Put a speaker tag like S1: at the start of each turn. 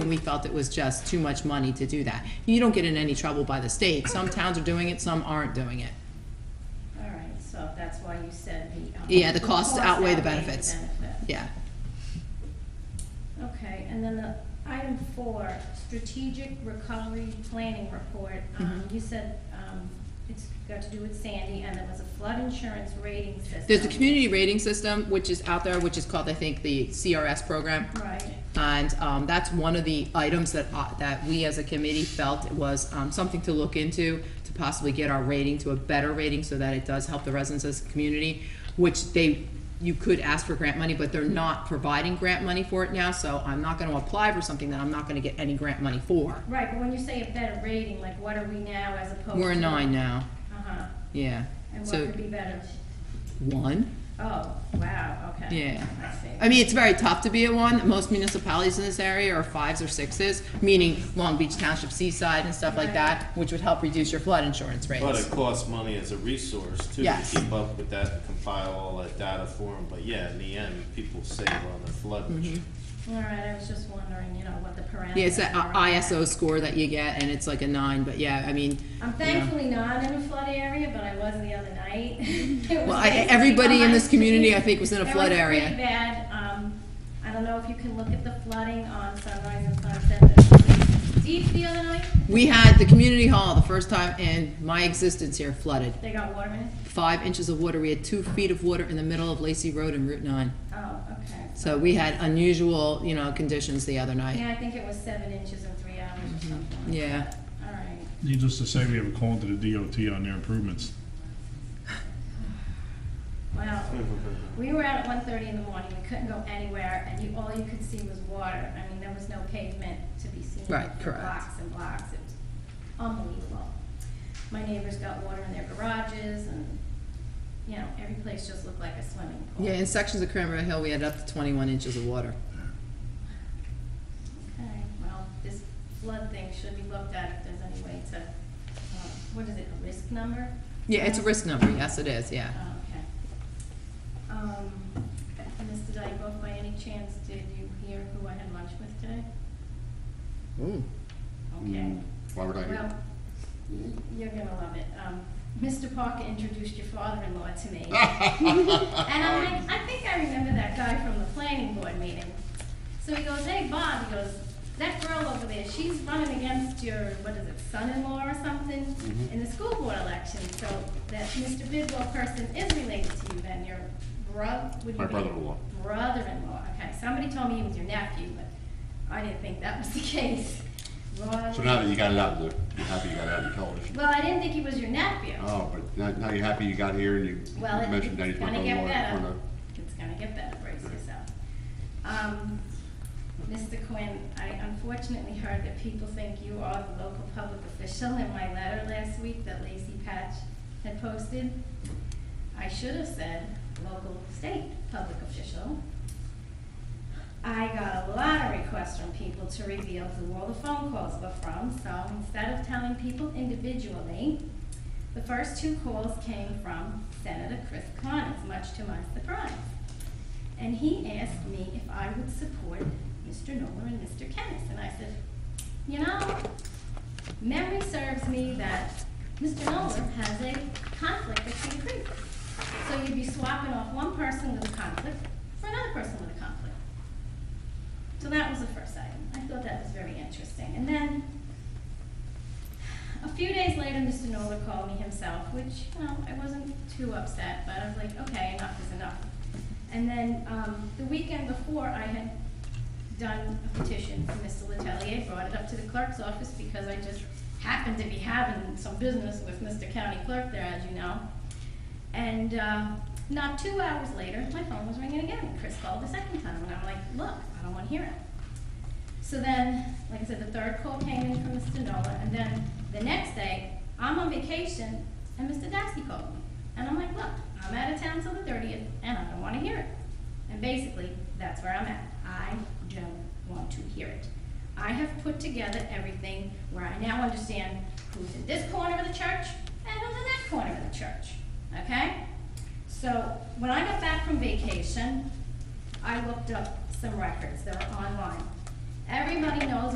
S1: and we felt it was just too much money to do that. You don't get in any trouble by the state. Some towns are doing it, some aren't doing it.
S2: All right, so that's why you said the. um,
S1: Yeah, the costs outweigh the
S2: outweighed
S1: benefits.
S2: benefit.
S1: Yeah.
S2: Okay, and then the item four, strategic recovery planning report. Um,
S1: Mhm.
S2: You said um, it's got to do with Sandy, and there was a flood insurance rating system.
S1: There's a community rating system, which is out there, which is called, I think, the CRS program.
S2: Right,
S1: And um, that's one of the items that, uh, that we as a committee felt was um, something to look into to possibly get our rating to a better rating so that it does help the residents of the community, which they, you could ask for grant money, but they're not providing grant money for it now, so I'm not gonna apply for something that I'm not gonna get any grant money for.
S2: right, but when you say a better rating, like what are we now as opposed to?
S1: We're a nine now,
S2: Uh-huh,
S1: yeah.
S2: and what
S1: So,
S2: could be better?
S1: one.
S2: Oh, wow, okay.
S1: Yeah.
S2: I see.
S1: I mean, it's very tough to be at one. Most municipalities in this area are fives or sixes, meaning Long Beach Township, Seaside, and stuff like that, which would help reduce your flood insurance
S3: But it
S1: rates.
S3: costs money as a resource too, to
S1: Yes.
S3: keep up with that, compile all that data for them, but yeah, in the end, people save on their flood insurance.
S2: All right, I was just wondering, you know, what the parameters.
S1: Yeah, uh, it's that
S2: are on
S1: I-
S2: that.
S1: ISO score that you get, and it's like a nine, but yeah, I mean,
S2: I'm thankfully not in a flood area, but I was the other night. It was
S1: Well, I-
S2: basically
S1: everybody in this
S2: behind
S1: community,
S2: me.
S1: I think, was in a flood area.
S2: It was pretty bad. Um, I don't know if you can look at the flooding on Sunrise and Sunset. but Deep the other night,
S1: we had the community hall the first time in my existence here flooded.
S2: they got water in it.
S1: Five inches of water. We had two feet of water in the middle of Lacey Road and Route Nine.
S2: Oh, okay.
S1: So we had unusual, you know, conditions the other night.
S2: Yeah, I think it was seven inches in three hours
S1: Mm-hmm.
S2: or something. like
S1: Yeah.
S2: that. All right.
S4: Needless to say, we have a call into the DOT on their improvements.
S2: Well, we were out at one thirty in the morning. We couldn't go anywhere and you, all you could see was water. I mean, there was no pavement to be seen.
S1: Right,
S2: for
S1: correct.
S2: Blocks and blocks. It was unbelievable. My neighbors got water in their garages and, you know, every place just looked like a swimming pool.
S1: Yeah, in sections of Cranberry Hill, we had up to twenty-one inches of water.
S2: Okay, well, this flood thing should be looked at if there's any way to, uh, what is it, a risk number?
S1: Yeah, it's a risk number, yes it is, yeah.
S2: Oh, okay. Um, Mr. Dykoff, by any chance, did you hear who I had lunch with today? Okay.
S5: Mm, Why would I hear?
S2: Well, y- you're gonna love it. Um, Mr. Parker introduced your father-in-law to me. And I'm
S5: Um,
S2: like, I think I remember that guy from the planning board meeting. So he goes, hey, Bob, he goes, that girl over there, she's running against your, what is it, son-in-law or something
S5: Mm-hmm.
S2: in the school board election. So that Mr. Bidwell person is related to you then, your bro, would you
S5: My
S2: be-
S5: brother-in-law.
S2: Brother-in-law, okay. Somebody told me he was your nephew, but I didn't think that was the case.
S5: So now that you got it out, you're you're happy you got it out in television?
S2: Well, I didn't think he was your nephew.
S5: Oh, but now, now you're happy you got here and you you
S2: Well, it-
S5: mentioned that he's
S2: it's
S5: my
S2: gonna get
S5: brother-in-law. or
S2: better.
S5: not.
S2: It's gonna get better, brace yourself. Um, Mr. Quinn, I unfortunately heard that people think you are the local public official in my letter last week that Lacey Patch had posted. I should have said local state public official. I got a lot of requests from people to reveal who all the phone calls were from, so instead of telling people individually, the first two calls came from Senator Chris Connors, much to my surprise. And he asked me if I would support Mr. Noller and Mr. Kennis, and I said, you know, memory serves me that Mr. Noller has a conflict with King Creek. So you'd be swapping off one person with a conflict for another person with a conflict. So that was the first item. I thought that was very interesting. And then, a few days later, Mr. Nola called me himself, which, you know, I wasn't too upset, but I was like, okay, enough is enough. And then, um, the weekend before, I had done a petition for Mr. Letelier, brought it up to the clerk's office because I just happened to be having some business with Mr. County Clerk there, as you know. And uh, not two hours later, my phone was ringing again. Chris called the second time, and I'm like, look, I don't want to hear it. So then, like I said, the third call came in from Mr. Nola, and then the next day, I'm on vacation, and Mr. Dasty called me. And I'm like, look, I'm out of town till the thirtieth, and I don't wanna hear it. And basically, that's where I'm at. I don't want to hear it. I have put together everything where I now understand who's in this corner of the church and who's in that corner of the church, okay? So, when I got back from vacation, I looked up some records that are online. Everybody knows